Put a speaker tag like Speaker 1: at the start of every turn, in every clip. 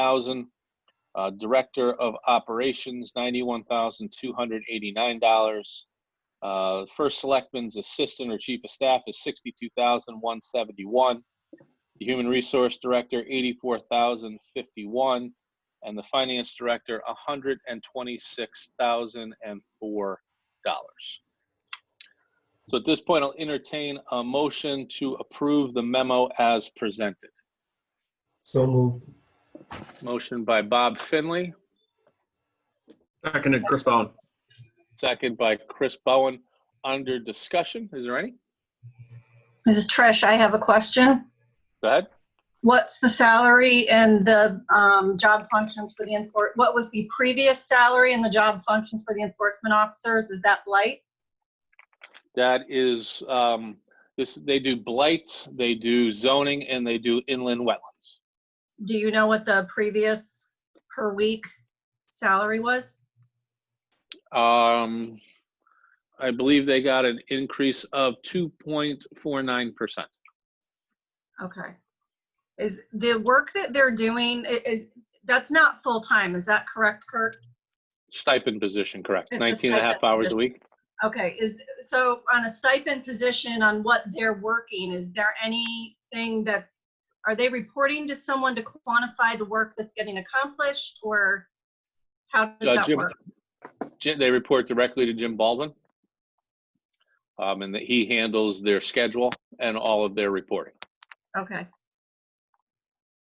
Speaker 1: thousand. Uh, Director of Operations, ninety-one thousand, two hundred eighty-nine dollars. Uh, First Selectman's Assistant or Chief of Staff is sixty-two thousand, one seventy-one. The Human Resource Director, eighty-four thousand, fifty-one. And the Finance Director, hundred and twenty-six thousand and four dollars. So at this point, I'll entertain a motion to approve the memo as presented.
Speaker 2: So moved.
Speaker 1: Motion by Bob Finley,
Speaker 3: Seconded, Chris Bowen.
Speaker 1: second by Chris Bowen. Under discussion, is there any?
Speaker 4: This is Trish. I have a question.
Speaker 1: Go ahead.
Speaker 4: What's the salary and the um, job functions for the enfor, what was the previous salary and the job functions for the enforcement officers? Is that light?
Speaker 1: That is, um, this, they do blight, they do zoning, and they do inland wetlands.
Speaker 4: Do you know what the previous per week salary was?
Speaker 1: Um, I believe they got an increase of two point four nine percent.
Speaker 4: Okay. Is the work that they're doing, i- is, that's not full-time, is that correct, Kurt?
Speaker 1: Stipend position, correct?
Speaker 4: It's a
Speaker 1: Nineteen and a half
Speaker 4: stipend
Speaker 1: hours a
Speaker 4: position.
Speaker 1: week.
Speaker 4: Okay, is, so on a stipend position on what they're working, is there anything that, are they reporting to someone to quantify the work that's getting accomplished or how
Speaker 1: Uh,
Speaker 4: does that
Speaker 1: Jim-
Speaker 4: work?
Speaker 1: Jim- They report directly to Jim Baldwin. Um, and that he handles their schedule and all of their reporting.
Speaker 4: Okay.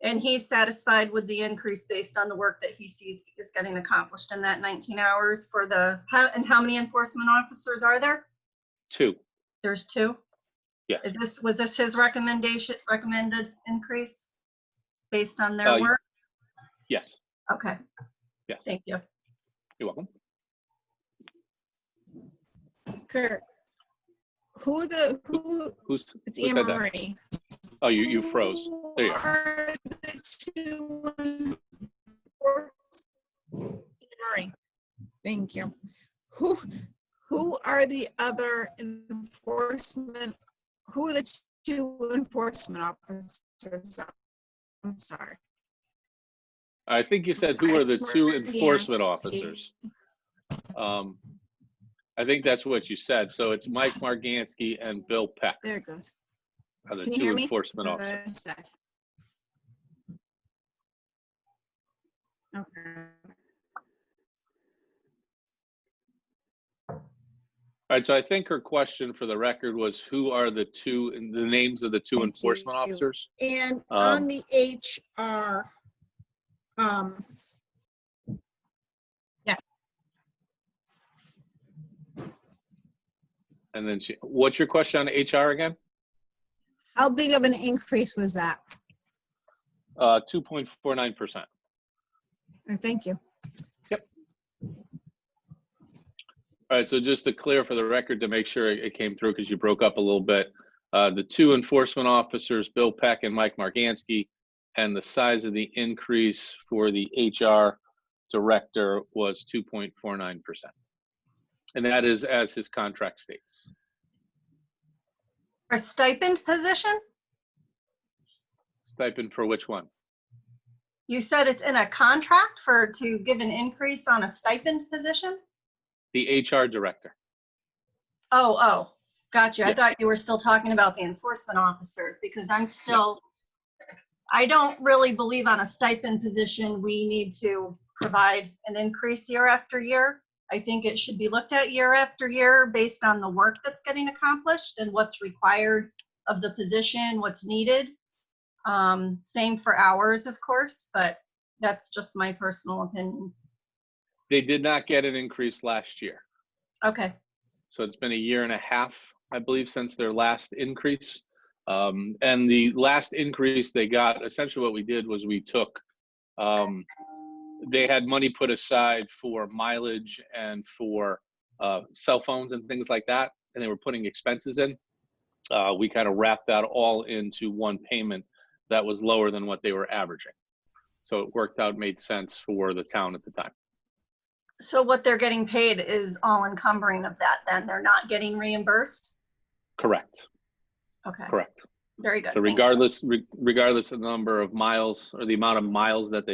Speaker 4: And he's satisfied with the increase based on the work that he sees is getting accomplished in that 19 hours for the, how, and how many enforcement officers are there?
Speaker 1: Two,
Speaker 4: There's two?
Speaker 1: Yeah.
Speaker 4: Is this, was this his recommendation, recommended increase based on
Speaker 1: Uh,
Speaker 4: their
Speaker 1: y-
Speaker 4: work?
Speaker 1: yes,
Speaker 4: Okay,
Speaker 1: yes,
Speaker 4: thank you.
Speaker 1: you're welcome.
Speaker 5: Kurt, who the, who,
Speaker 1: Who's,
Speaker 5: it's
Speaker 1: who
Speaker 5: Anne
Speaker 1: said that?
Speaker 5: Marie.
Speaker 1: Oh, you, you froze. There you
Speaker 5: Who
Speaker 1: are.
Speaker 5: are the two enforcement- Anne Marie, Thank you. Who, who are the other enforcement, who are the two enforcement officers? I'm sorry.
Speaker 1: I think you said who are the two
Speaker 5: Yeah.
Speaker 1: enforcement officers? Um, I think that's what you said. So it's Mike Margansky and Bill Peck
Speaker 5: There it goes.
Speaker 1: are the
Speaker 5: Can you hear
Speaker 1: two
Speaker 5: me?
Speaker 1: enforcement
Speaker 5: That's what
Speaker 1: officers.
Speaker 5: I said. Okay.
Speaker 1: All right, so I think her question for the record was who are the two, the names of the two
Speaker 5: Thank
Speaker 1: enforcement
Speaker 5: you.
Speaker 1: officers?
Speaker 5: And
Speaker 1: Um,
Speaker 5: on the HR, um,
Speaker 1: And then she, what's your question on HR again?
Speaker 5: how big of an increase was that?
Speaker 1: Uh, two point four nine percent.
Speaker 5: Uh, Thank you.
Speaker 1: All right, so just to clear for the record, to make sure it- it came through, because you broke up a little bit, uh, the two enforcement officers, Bill Peck and Mike Margansky, and the size of the increase for the HR director was two point four nine percent. And that is as his contract states.
Speaker 4: A stipend position?
Speaker 1: Stipend for which one?
Speaker 4: You said it's in a contract for, to give an increase on a stipend position?
Speaker 1: The HR director.
Speaker 4: Oh, oh, gotcha. I
Speaker 1: Yeah.
Speaker 4: thought you were still talking about the enforcement officers because I'm still, I don't really believe on a stipend position, we need to provide an increase year after year. I think it should be looked at year after year based on the work that's getting accomplished and what's required of the position, what's needed. Um, same for hours, of course, but that's just my personal opinion.
Speaker 1: They did not get an increase last year.
Speaker 4: Okay,
Speaker 1: So it's been a year and a half, I believe, since their last increase. Um, and the last increase they got, essentially what we did was we took, um, they had money put aside for mileage and for uh, cell phones and things like that, and they were putting expenses in. Uh, we kind of wrapped that all into one payment that was lower than what they were averaging. So it worked out, made sense for the town at the time.
Speaker 4: so what they're getting paid is all encumbering of that then? They're not getting reimbursed?
Speaker 1: Correct,
Speaker 4: Okay,
Speaker 1: correct.
Speaker 4: very good.
Speaker 1: So
Speaker 4: Thank you.
Speaker 1: regardless, re- regardless of the number of miles or the amount of miles that they